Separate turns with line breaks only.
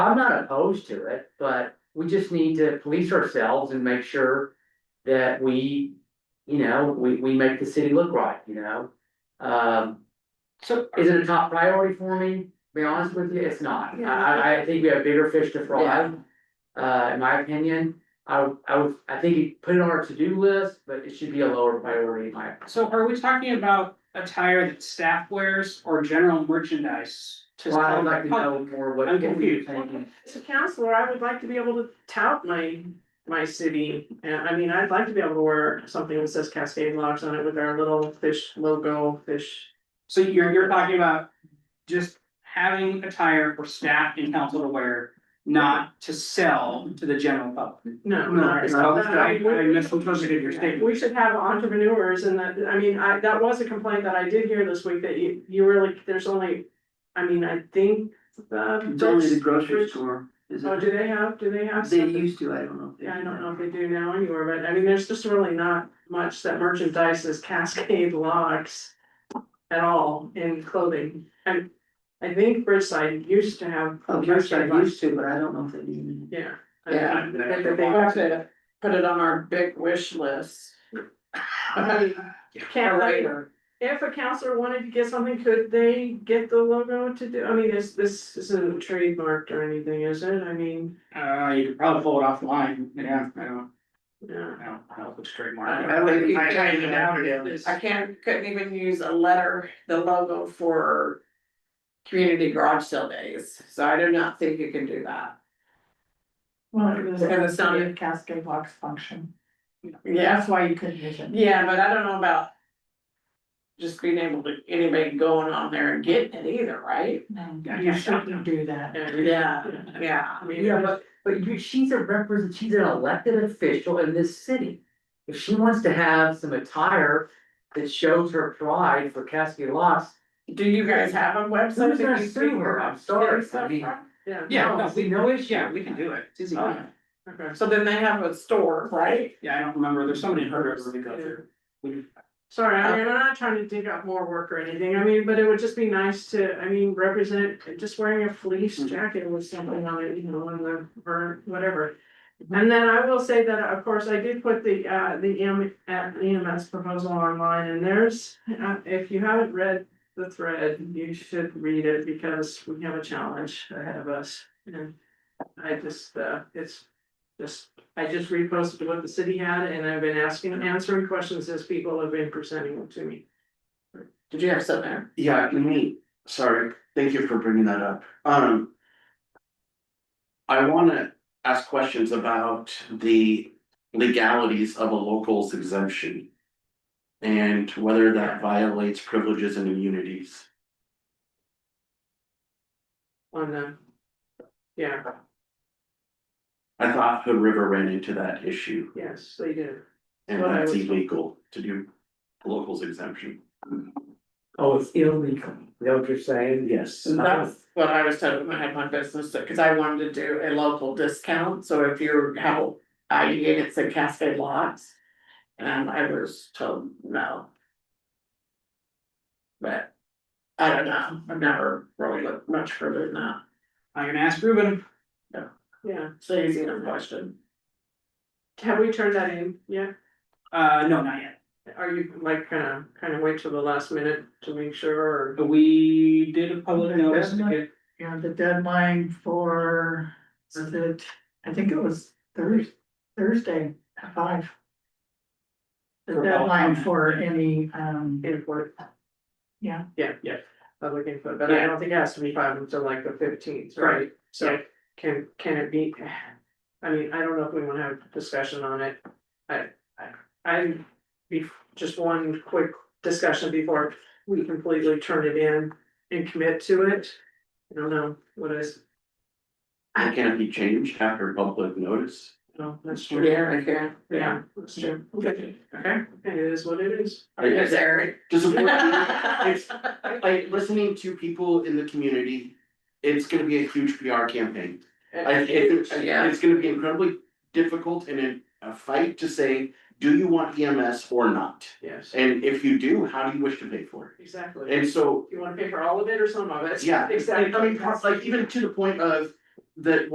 I'm not opposed to it, but we just need to police ourselves and make sure that we, you know, we, we make the city look right, you know? Um,
So,
is it a top priority for me? To Be honest with you, it's not. I, I, I think we have bigger fish to fry. Uh, in my opinion, I, would- I would, I think you put it on our to-do list, but it should be a lower priority in my opinion.
so are we talking about attire that staff wears or general merchandise? to
Well, I'd like to
sell?
know more what
I'm
you're
confused.
thinking.
As a counselor, I would like to be able to tout my, my city, and I mean, I'd like to be able to wear something that says Cascade Lodge on it with our little fish logo, fish.
So you're, you're talking about just having attire for staff and council to wear, not to sell to the general public?
No,
No,
not.
it's not.
not-
I- I misunderstood your statement.
We should have entrepreneurs and that, I mean, I, that was a complaint that I did hear this week that you, you were like, there's only, I mean, I think.
It's only the
the
grocery store, is
Oh,
it?
do they have, do they have?
They
something?
used to, I don't know. if they
Yeah, I
do
don't know
now.
if they do now anywhere, but I mean, there's just really not much that merchandises Cascade locks at all in clothing. And I think Bridgeside used to have.
Oh, yes, I used to, but I don't know if they do
Yeah.
Yeah,
I think
But
that
they
they-
have to put it on our big wish list.
I mean, Can't, I mean, if a counselor wanted to get something, could they get the logo to do, I mean, this, this isn't trademarked or anything, is it? I mean,
Uh, you could probably pull it offline, yeah, I don't,
yeah.
I don't, I don't put
I
straight mark.
don't think you
I- I-
can. I can't, couldn't even use a letter, the logo for community garage sale days, so I do not think you can do that.
Well,
Because it's not a
cascade box function.
Yeah,
why you couldn't use it.
yeah, but I don't know about just being able to, anybody going on there and getting it either, right?
You shouldn't do that.
Yeah. Yeah.
I mean,
Yeah, but, but you, she's a represent, she's an elected official in this city. If she wants to have some attire that shows her pride for Cascade Locks,
Do you guys have a website?
Who's gonna
that you
sue
can
her? I'm
get
sorry,
stuff
I mean-
from?
yeah.
Yeah, no, we
no
know it,
issue.
yeah, we can do it, it's easy.
Oh.
Okay.
So then they have a store, right?
Yeah, I don't remember, there's somebody in Herb we go through. We-
Sorry, I mean, I'm not trying to dig up more work or anything, I mean, but it would just be nice to, I mean, represent, just wearing a fleece
Mm.
jacket with something on it, you know, on the, or whatever. And then I will say that, of course, I did put the, uh, the EM, at EMS proposal online, and there's, uh, if you haven't read the thread, you should read it, because we have a challenge ahead of us, and I just, uh, it's just I just reposted what the city had and I've been asking, answering questions as people have been presenting them to me.
Did you have something there?
Yeah, let me, sorry, thank you for bringing that up, um. I wanna ask questions about the legalities of a local's exemption. And whether that violates privileges and immunities.
On the, yeah,
I thought Hood River ran into that issue,
yes, they do.
and
Well, I
that's
was-
illegal to do locals exemption.
Oh, it's illegal, you know what you're saying?
Yes.
That's what I was told when I had my business, because I wanted to do a local discount, so if you're how I units at Cascade Lots. And I was told no. But I don't know, I've never really looked much further than that,
I'm gonna ask Ruben.
Yeah,
it's an easy enough question.
have we turned that in Yeah.
Uh, no, not yet.
Are you like kinda, kinda wait till the last minute to make sure or?
But we did a public notice to get,
Yeah, the deadline for, was it, I think it was Thursday, Thursday at five. The
For all
deadline
comment.
for any, um,
Input.
Yeah.
Yeah, yeah, public input, but I don't think it has to be five until like the fifteenth, right?
Right,
So
yeah.
can, can it be, I mean, I don't know if we wanna have a discussion on it. I, I, I, be, just one quick discussion before we completely turn it in and commit to it. I don't know, what is,
It can't be changed after public notice.
no, that's true,
Yeah, I can.
yeah, that's true, okay, okay, it is what it is.
It's Eric.
To support, it's like listening to people in the community, it's gonna be a huge PR campaign. I it's
Yeah.
it's gonna be incredibly difficult and in a fight to say, do you want EMS or not?
Yes,
And if you do, how do you wish to pay for it?
exactly.
And so,
You wanna pay for all of it or some of it?
yeah, it's
Exactly.
like, I mean, pro- like even to the point of, that